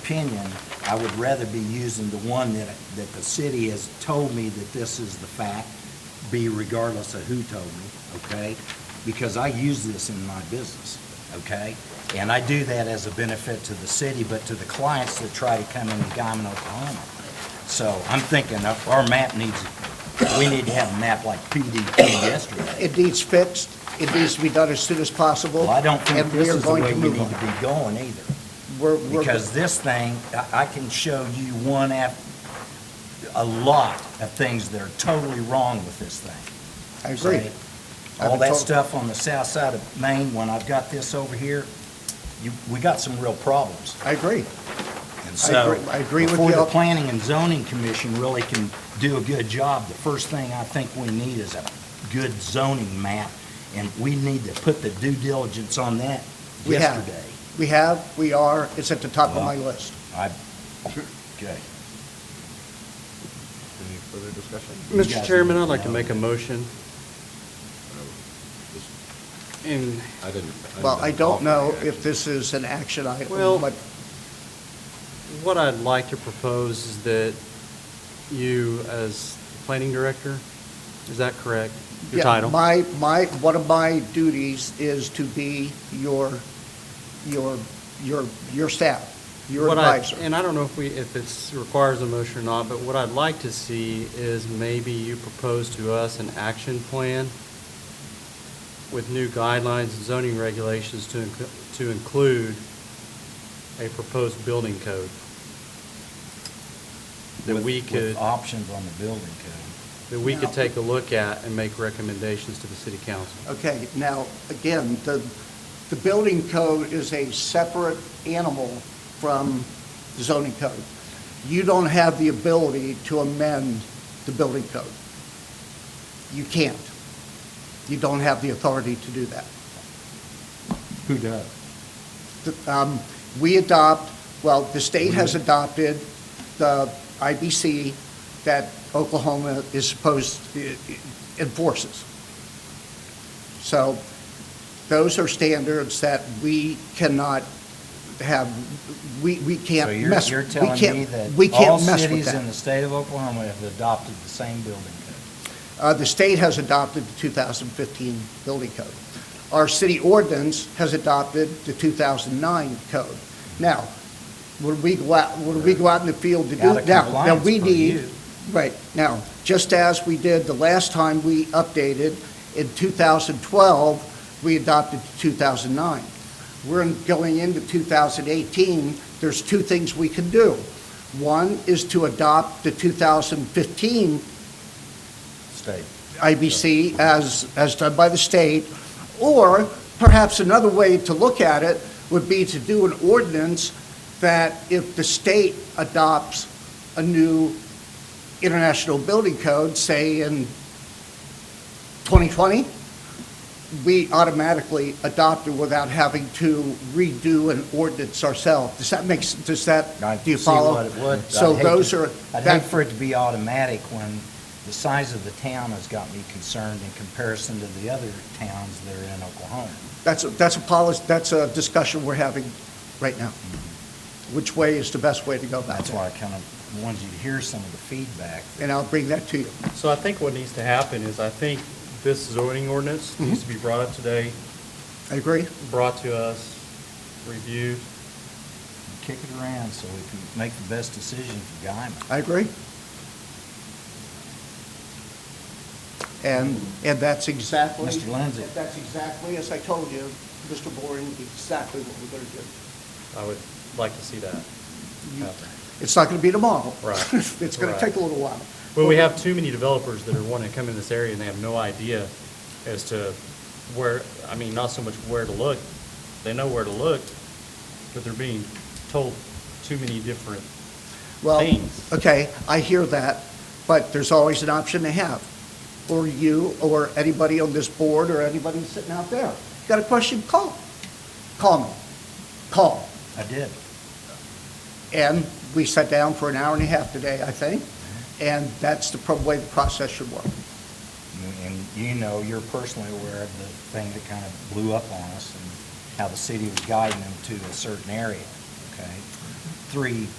opinion, I would rather be using the one that, that the city has told me that this is the fact, be regardless of who told me, okay? Because I use this in my business, okay? And I do that as a benefit to the city, but to the clients that try to come into Guyman, Oklahoma. So I'm thinking of- our map needs, we need to have a map like PDP yesterday. It needs fixed, it needs to be done as soon as possible. Well, I don't think and this are is the going way to we move need on. to be going either. We're- we're- Because this thing, I, I can show you one af, a lot of things that are totally wrong with this thing. I agree. Right? I've All been that told- stuff on the south side of Maine, when I've got this over here, you, we got some real problems. I agree. And so, agree- I agree with before you. the planning and zoning commission really can do a good job, the first thing I think we need is a good zoning map. And we need to put the due diligence on that We have. yesterday. We have, we are, it's at the top of my list. Okay. Any further discussion? You guys Mr. Chairman, need I'd like to know. make a motion, and, I didn't. Well, I don't offer know any if action. this is an action item. Well- but What I'd like to propose is that you, as planning director, is that correct? Your yeah, title? My, my, one of my duties is to be your, your, your, your staff, your What I- advisor. And I don't know if we, if it's requires a motion or not, but what I'd like to see is maybe you propose to us an action plan with new guidelines and zoning regulations to, inc- to include a proposed building code. That With- we with could. options on the building code. that we No. could take a look at and make recommendations to the city council. Okay, now, again, the, the building code is a separate animal from the zoning code. You don't have the ability to amend the building code. You can't. You don't have the authority to do that. Who does? The- um, We adopt, well, the state has Mm-hmm. adopted the IBC that Oklahoma is supposed, enforces. So those are standards that we cannot have, we, we So can't you're, mess, we you're telling me can't, we that all can't mess with cities in that. the state of Oklahoma have adopted the same building code? Uh, The state has adopted the 2015 building code. Our city ordinance has adopted the 2009 code. Now, when we go out, when we go out in the field to do, Out now, of now we compliance per need, you. right, now, just as we did the last time we updated, in 2012, we adopted 2009. We're in- going into 2018, there's two things we can do. One is to adopt the 2015 State. IBC as, as done by the state, or perhaps another way to look at it would be to do an ordinance that if the state adopts a new international building code, say in 2020, we automatically adopt it without having to redo an ordinance ourselves. Does that make, s- does that, I do you see follow? what it would. I'd So hate to- those are, I'd that- hate for it to be automatic when the size of the town has got me concerned in comparison to the other towns that are in Oklahoma. That's, a- that's a policy, that's a discussion we're having right now. Mm-hmm. Which way is the best way to go about That's that? why I kind of wanted you to hear some of the feedback. And I'll bring that to you. So I think what needs to happen is, I think this zoning ordinance Mm-hmm. needs to be brought up today, I agree? brought to us, reviewed. Kick it around so we can make the best decision for Guyman. I agree. And, and that's exactly. Mr. Lindsay. That's exactly, as I told you, Mr. Boring, exactly what we're going to do. I would like to see that happen. It's not going to be tomorrow. Right. It's going to Right. take a little while. Well, we have too many developers that are wanting to come in this area and they have no idea as to where, I mean, not so much where to look. They know where to look, but they're being told too many different Well, things. okay, I hear that, but there's always an option to have, or you, or anybody on this board, or anybody sitting out there. Got a question, call. Call me. Call. I did. And we sat down for an hour and a half today, I think, and that's the prob- way the process should work. And you know, you're personally aware of the thing that kind of blew up on us and how the city was guiding them to a certain area, okay? three